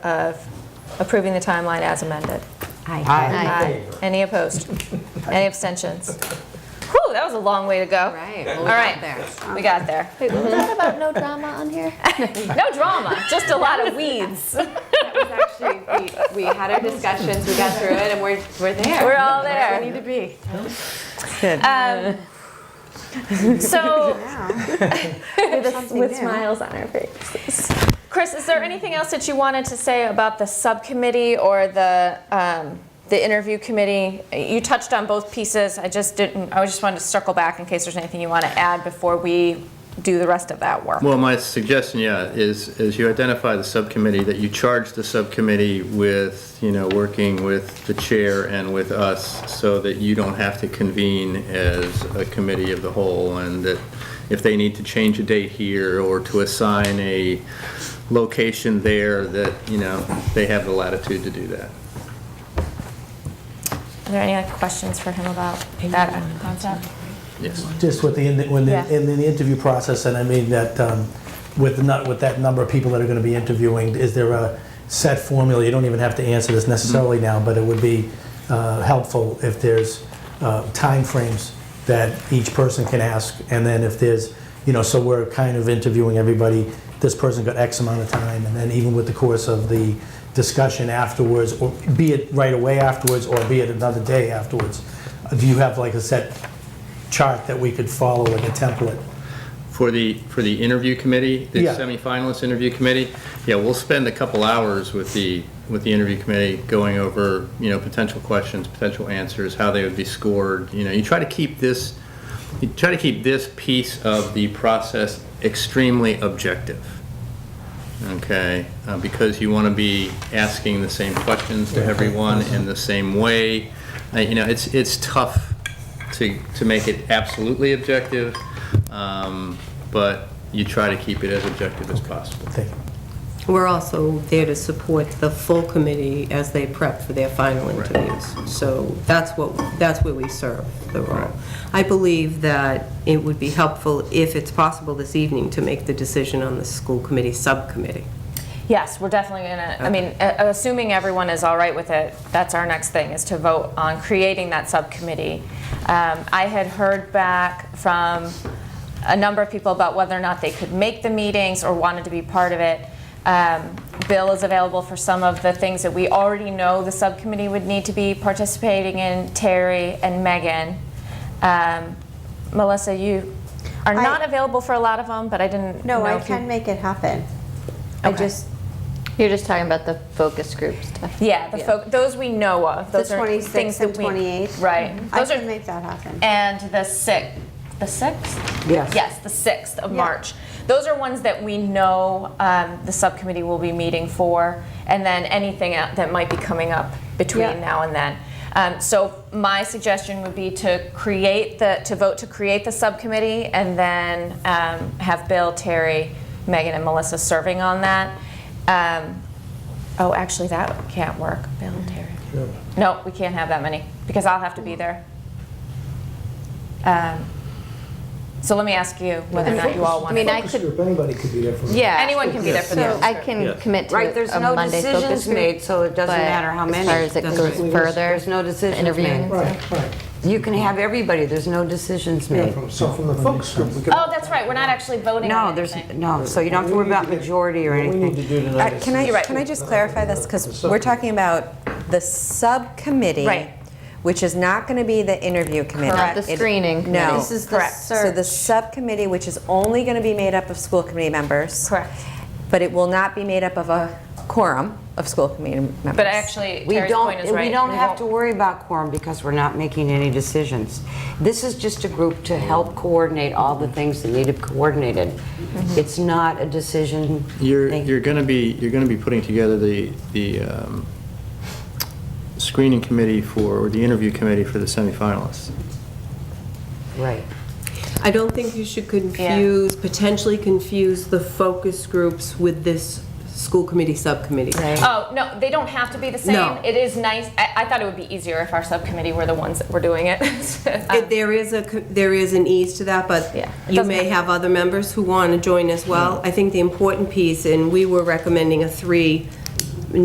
of approving the timeline as amended? Aye. Aye. Any opposed? Any abstentions? Whew, that was a long way to All go. right, well, All we right. got there. We got there. Wait, what was that about no drama on here? No drama, just a lot of weeds. Actually, we, we had our discussions, we got through it, and we're, we're there. We're all there. Where we need to be. Um, So, Something new. on our faces. Chris, is there anything else that you wanted to say about the subcommittee or the, um, the interview committee? You touched on both pieces. I just didn't, I just wanted to circle back in case there's anything you want to add before we do the rest of that work. Well, my suggestion, yeah, is, is you identify the subcommittee, that you charge the subcommittee with, you know, working with the chair and with us so that you don't have to convene as a committee of the whole and that if they need to change a date here or to assign a location there, that, you know, they have the latitude to do that. Are there any other questions for him about that concept? Yes. just with the, in the- when the, Yeah. in the interview process, and I mean that, um, with not, with that number of people that are gonna be interviewing, is there a set formula? You don't even have to answer this necessarily now, but it would be, uh, helpful if there's, uh, timeframes that each person can ask, and then if there's, you know, so we're kind of interviewing everybody, this person got X amount of time, and then even with the course of the discussion afterwards, or be it right away afterwards, or be it another day afterwards, do you have like a set chart that we could follow like a template. For the, for the interview committee, the Yeah. semifinalist interview committee, yeah, we'll spend a couple hours with the, with the interview committee going over, you know, potential questions, potential answers, how they would be scored, you know, you try to keep this, you try to keep this piece of the process extremely objective, okay? Uh, Because you want to be asking the same questions to everyone in the same way. Uh, You know, it's, it's tough to, to make it absolutely objective, um, but you try to keep it as objective as possible. Thank you. We're also there to support the full committee as they prep for their final Right. interviews. So that's what, that's where we serve the role. I believe that it would be helpful, if it's possible this evening, to make the decision on the school committee subcommittee. Yes, we're definitely gonna, I mean, a- assuming everyone is all right with it, that's our next thing, is to vote on creating that subcommittee. Um, I had heard back from a number of people about whether or not they could make the meetings or wanted to be part of it. Um, Bill is available for some of the things that we already know the subcommittee would need to be participating in, Terry and Megan. Um, Melissa, you are I- not available for a lot of them, but I didn't know No, I if you- can make it happen. I Okay. just, You're just talking about the focus group stuff. Yeah, the Yeah. folk, those we know of. the Those are things 26th that and we- 28th. Right. I Those can are, make that happen. and the sixth, the sixth? Yes. Yes, the sixth of Yeah. March. Those are ones that we know um, the subcommittee will be meeting for, and then anything out- that might be coming up Yeah. between now and then. Um, So my suggestion would be to create the, to vote to create the subcommittee, and then um, have Bill, Terry, Megan, and Melissa serving on that. Um, Oh, actually, that can't work, Bill and Terry. No, we can't have that many, because I'll have to be there. Um, So let me ask you whether or not you all I want mean, to. I could, Anybody could be there for. Yeah. Anyone can be there for So- those. I can commit to Right, there's a no Monday focus decisions group. made, so it doesn't but matter how many. As far as it That's goes right. further. There's no decisions interviewing. made. You can have everybody, there's no decisions made. So from the focus group, we could. Oh, that's right, we're not actually voting No, on there's, anything. no, so you don't have to worry about majority or anything. Uh, Can I, You're right. can I just clarify this? Because we're talking about the subcommittee. Right. Which is not going to be the interview committee. Not the It- screening committee. No. This is the Correct. So the subcommittee, which is only going to be made up of school committee members. Correct. But it will not be made up of a quorum of school committee members. But actually, We Terry's point don't, is right. we don't have won't- to worry about quorum because we're not making any decisions. This is just a group to help coordinate all the things that need to be coordinated. Mm-hmm. It's not a decision. You're, thing. you're gonna be, you're gonna be putting together the, the um, screening committee for, or the interview committee for the semifinalists. Right. I don't think you should confuse, potentially confuse the focus groups with this school committee subcommittee. Oh, no, they don't have to be the No. same. It is nice, I, I thought it would be easier if our subcommittee were the ones that were doing it. It- There is a, co- there is an ease to that, but Yeah, it you doesn't may have other members who want to join as well. I think the important piece, and we were recommending a three